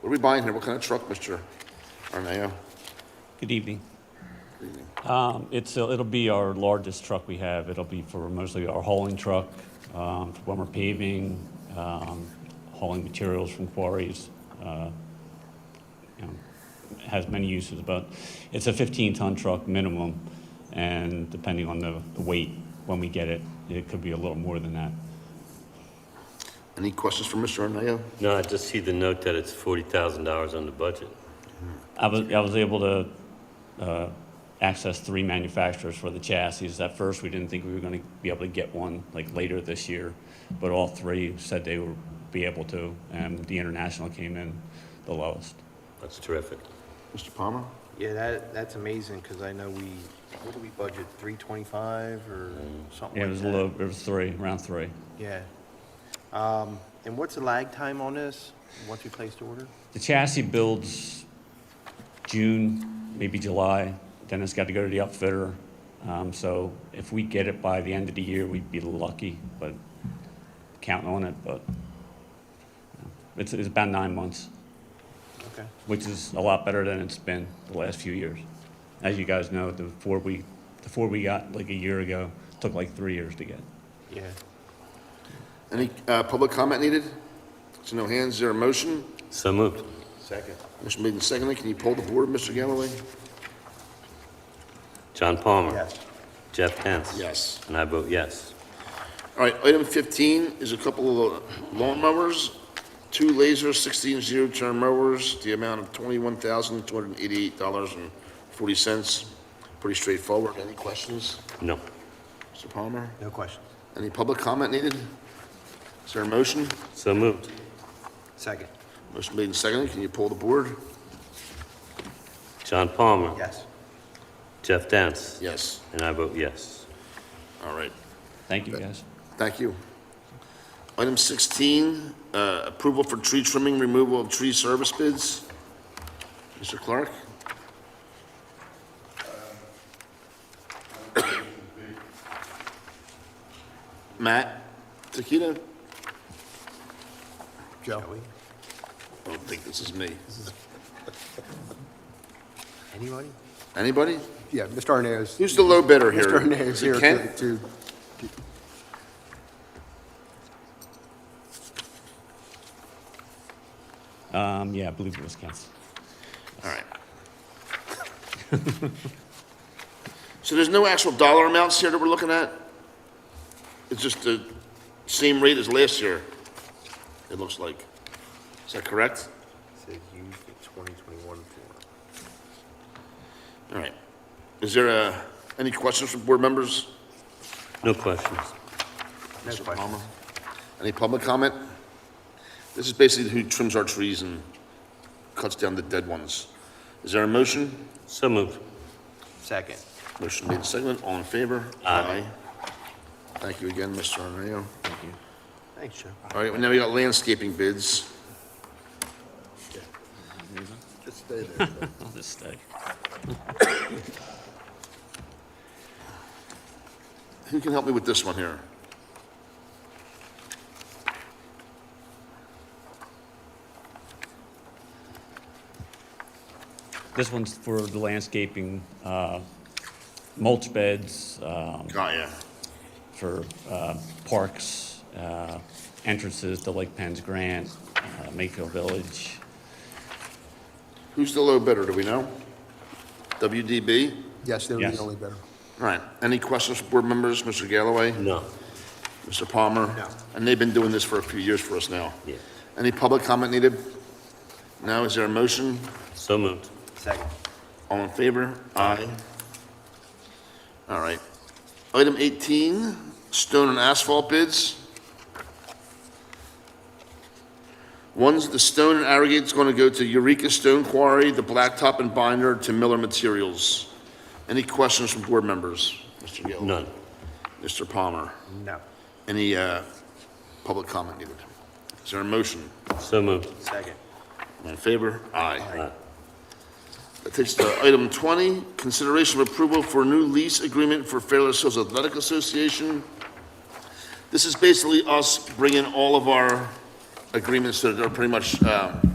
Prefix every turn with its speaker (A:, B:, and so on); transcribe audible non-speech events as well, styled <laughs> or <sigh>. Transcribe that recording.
A: What are we buying here? What kind of truck, Mr. Arneo?
B: Good evening. Um, It's, uh, it'll be our largest truck we have. It'll be for mostly our hauling truck, um, for when we're paving, um, hauling materials from quarries. uh, you know, Has many uses, but it's a 15-ton truck minimum, and depending on the the weight, when we get it, it could be a little more than that.
A: Any questions for Mr. Arneo?
C: No, I just see the note that it's forty thousand dollars on the budget.
B: I was, I was able to uh, access three manufacturers for the chassis. At first, we didn't think we were going to be able to get one like later this year, but all three said they would be able to, and the International came in the lowest.
C: That's terrific.
A: Mr. Palmer?
D: Yeah, that, that's amazing, because I know we, what do we budget, three twenty-five or something
B: Yeah,
D: like
B: it was
D: that?
B: low, it was three, around three.
D: Yeah. Um, and what's the lag time on this, once you place the order?
B: The chassis builds June, maybe July, then it's got to go to the upfitter. Um, So if we get it by the end of the year, we'd be lucky, but counting on it, but you know, it's, it's about nine months,
D: Okay,
B: which is a lot better than it's been the last few years. As you guys know, the four we, the four we got like a year ago took like three years to get.
D: yeah.
A: Any uh, public comment needed? So no hands, zero motion.
C: So moved.
D: Second.
A: Motion made and seconded. Can you pull the board, Mr. Galloway?
C: John Palmer.
D: Yes.
C: Jeff Pence.
A: Yes.
C: And I vote yes.
A: All right, item 15 is a couple of lawn mowers, two laser 16-inch zero-turn mowers, the amount of $21,288.40. Pretty straightforward. Any questions,
C: No.
A: Mr. Palmer?
D: No questions.
A: Any public comment needed? Is there a motion?
C: So moved.
D: Second.
A: Motion made and seconded. Can you pull the board?
C: John Palmer.
D: Yes.
C: Jeff Dance.
A: Yes.
C: And I vote yes.
A: All right.
B: Thank you, guys.
A: Thank you. Item 16, uh, approval for tree trimming, removal of tree service bids. Mr. Clark? Matt? Takita?
D: Joey?
A: I don't think this is me.
D: Anybody?
A: Anybody?
E: Yeah, Mr. Arnaz.
A: Who's the low bidder here?
E: Mr. Arnaz is
A: Is it
E: here to,
A: Kent?
E: to,
B: Um, yeah, I believe it was Kent's.
A: All right. <laughs> So there's no actual dollar amounts here that we're looking at? It's just the same rate as last year, it looks like. Is that correct?
D: Says use the twenty twenty-one form.
A: All right. Is there, uh, any questions from board members?
C: No questions.
D: No
A: Mr.
D: questions.
A: Palmer? Any public comment? This is basically who trims our trees and cuts down the dead ones. Is there a motion?
C: So moved.
D: Second.
A: Motion made in second. All in favor? Aye. Thank you again, Mr. Arneo.
D: Thanks, Joe.
A: All right, well, now we got landscaping bids.
E: just stay there.
B: I'll just stay.
A: Who can help me with this one here?
B: This one's for the landscaping, uh, mulch beds, um,
A: Got ya.
B: for uh, parks, uh, entrances to Lake Penn's Grant, uh, Mayfield Village.
A: Who's the low bidder, do we know? WDB?
E: Yes, they were
B: Yes.
E: the only bidder.
A: All right, any questions from board members, Mr. Galloway,
C: No.
A: Mr. Palmer?
D: No.
A: And they've been doing this for a few years for us now.
C: Yeah.
A: Any public comment needed? Now, is there a motion?
C: So moved.
D: Second.
A: All in favor? Aye. All right. Item 18, stone and asphalt bids. One's the stone and aggregate's going to go to Eureka Stone Quarry, the blacktop and binder to Miller Materials. Any questions from board members? Mr. Gill?
C: None.
A: Mr. Palmer?
D: No.
A: Any uh, public comment needed? Is there a motion?
C: So moved.
D: Second.
A: All in favor? Aye.
C: Aye.
A: That takes us to item 20, consideration of approval for new lease agreement for Fairless Hills Athletic Association. This is basically us bringing all of our agreements that are pretty much um,